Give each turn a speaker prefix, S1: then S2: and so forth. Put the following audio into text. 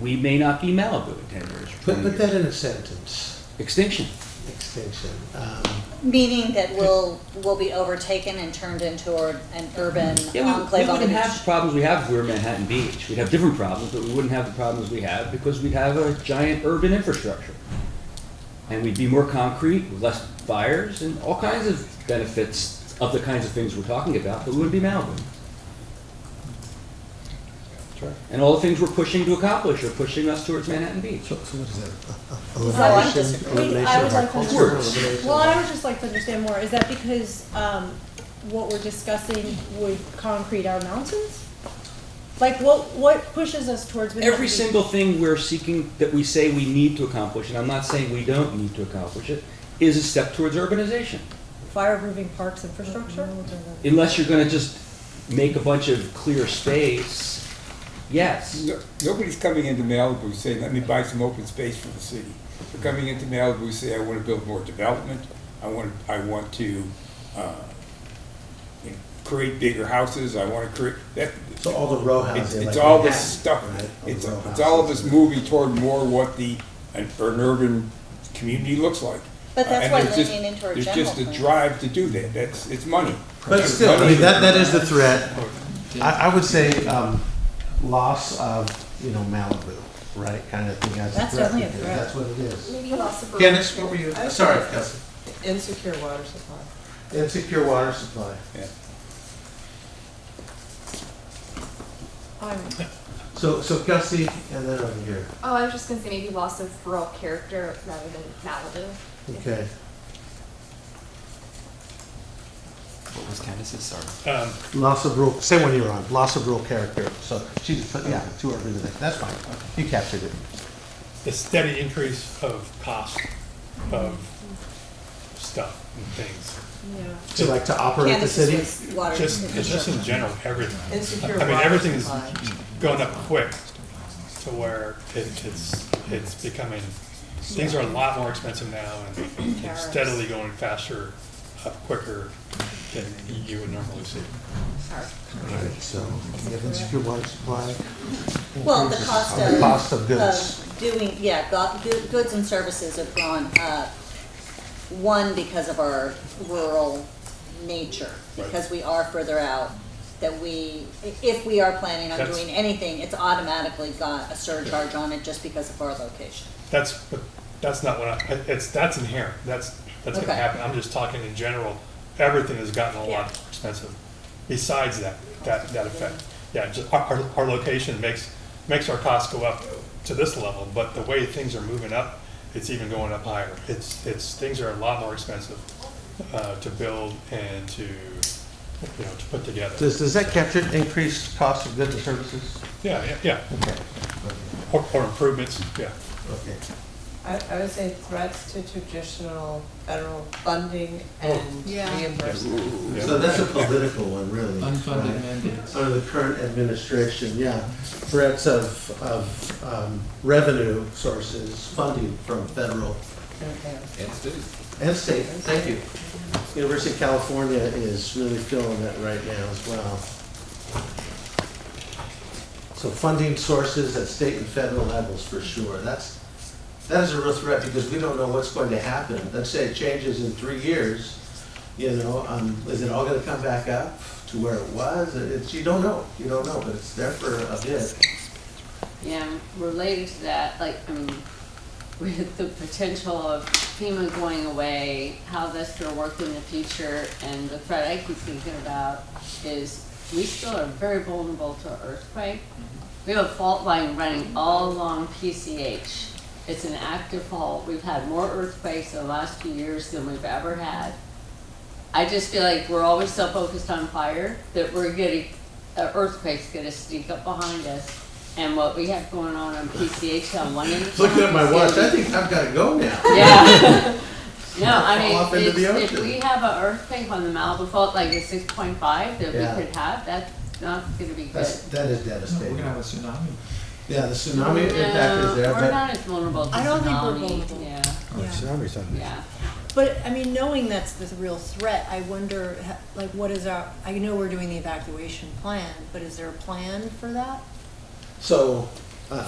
S1: we may not be Malibu in 10 years. or
S2: Put,
S1: 20
S2: put
S1: years.
S2: that in a sentence,
S1: Extinction.
S2: extension. Um,
S3: Meaning that we'll, will be overtaken and turned into a- an urban
S1: Yeah, we, we
S3: enclave on the
S1: wouldn't have the
S3: beach.
S1: problems we have if we were Manhattan Beach. We'd have different problems, but we wouldn't have the problems we have because we'd have a giant urban infrastructure. And we'd be more concrete, with less fires, and all kinds of benefits of the kinds of things we're talking about, but we wouldn't be Malibu. And all the things we're pushing to accomplish are pushing us towards Manhattan Beach.
S2: So, so what is that?
S3: I'm
S2: Elimination,
S3: disagreeing.
S2: elimination
S4: I would
S2: of our
S4: like to-
S2: cultural
S1: Words.
S2: elimination.
S4: Well, I would just like to understand more, is that because, um, what we're discussing would concrete our mountains? Like, what, what pushes us towards? Manhattan
S1: Every
S4: Beach?
S1: single thing we're seeking, that we say we need to accomplish, and I'm not saying we don't need to accomplish it, is a step towards urbanization.
S4: Fire-proofing parks infrastructure?
S1: Unless you're gonna just make a bunch of clear space, yes.
S5: No- Nobody's coming into Malibu saying, let me buy some open space for the city. They're coming into Malibu saying, I want to build more development, I want, I want to, uh, you know, create bigger houses, I want to create, that.
S2: So all the row houses,
S5: It's, it's
S2: Oh, like
S5: all this
S2: Manhattan,
S5: stuff,
S2: right? All the
S5: it's,
S2: row
S5: it's all of
S2: houses.
S5: this moving toward more what the, an an urban community looks like.
S3: But
S5: Uh,
S3: that's
S5: and
S3: why
S5: there's just-
S3: leaning into our
S5: There's
S3: general
S5: just a
S3: plan.
S5: drive to do that, that's, it's money.
S2: But
S5: It's
S2: still, I
S5: money.
S2: mean, that, that is the threat. I, I would say, um, loss of, you know, Malibu, right, kind of thing as a threat.
S4: That's definitely a
S2: because
S4: threat.
S2: That's what it is.
S6: Maybe loss of.
S2: Dennis, what were you, sorry, Kelsey.
S6: Insecure water supply.
S2: Insecure water supply.
S5: Yeah.
S7: Um,
S4: I'm,
S2: So, so Kelsey, and then over here,
S7: Oh, I was just gonna say maybe loss of rural character rather than Malibu.
S2: okay.
S8: What was Candace's? Sorry.
S9: Um,
S2: Loss of rule, same one you were on, loss of rule character, so she just put, yeah, two or three today, that's fine, you captured it.
S9: the steady increase of cost of stuff and things.
S4: yeah.
S2: So like to operate the
S3: Candace's
S2: city?
S3: was water.
S9: Just, it's just in general, everything.
S6: Insecure
S9: I mean,
S6: water
S9: everything is
S6: supply.
S9: going up quick to where it, it's, it's becoming, things are a lot more expensive now and it's steadily going faster, up quicker than you would normally see.
S2: Right, so you have insecure water supply.
S3: Well, the
S2: increases
S3: cost
S2: on
S3: of.
S2: The cost of goods.
S3: of Doing, yeah, go- goo- goods and services have gone up. One, because of our rural nature, because we are further out, that we, i- if we are planning on
S9: That's-
S3: doing anything, it's automatically got a surcharge on it just because of our location.
S9: That's, but that's not what I, it's, that's inherent, that's, that's gonna
S3: Okay.
S9: happen, I'm just talking in general, everything has gotten a lot more expensive, besides that, that, that effect. Yeah, just, our, our, our location makes, makes our costs go up to this level, but the way things are moving up, it's even going up higher. It's, it's, things are a lot more expensive, uh, to build and to, you know, to put together.
S2: Does, does that capture increased cost of goods and services?
S9: Yeah, yeah, yeah,
S2: Okay,
S9: or, or improvements, yeah.
S2: okay.
S6: I, I would say threats to traditional federal funding and
S4: Yeah.
S6: reimbursement.
S9: yeah.
S2: So that's a political one, really.
S8: Unfunded
S2: right?
S8: mandates.
S2: Under the current administration, yeah, threats of, of um, revenue sources, funding from federal
S6: Okay.
S2: and state. Thank you. University of California is really feeling that right now as well. So funding sources at state and federal levels for sure. That's, that is a real threat because we don't know what's going to happen. Let's say it changes in three years, you know, um, is it all gonna come back up to where it was? It's, you don't know, you don't know, but it's there for a bit.
S10: And related to that, like, I mean, with the potential of FEMA going away, how that's gonna work in the future, and the threat I keep thinking about is we still are very vulnerable to earthquake. We have a fault line running all along PCH. It's an active fault. We've had more earthquakes in the last few years than we've ever had. I just feel like we're always so focused on fire that we're getting, an earthquake's gonna sneak up behind us. And what we have going on on PCH on one end of town.
S2: Looking at my
S10: is
S2: watch, I
S10: getting-
S2: think I've gotta go now.
S10: yeah. No,
S2: Fall off
S10: I mean,
S2: into
S10: it's,
S2: the
S10: if
S2: ocean.
S10: we have an earthquake on the Malibu Fault, like a six point five that
S2: Yeah.
S10: we could have, that's not gonna be good.
S2: That's, that is
S8: No, we're
S2: devastating.
S8: gonna have a tsunami.
S2: Yeah, the tsunami impact is there,
S10: No, We're
S2: but
S10: not as vulnerable to
S4: I don't think we're vulnerable.
S10: tsunami, yeah,
S8: Oh,
S4: Yeah.
S10: yeah.
S4: But, I mean, knowing that's the real threat, I wonder, ha- like, what is our, I know we're doing the evacuation plan, but is there a plan for that?
S2: so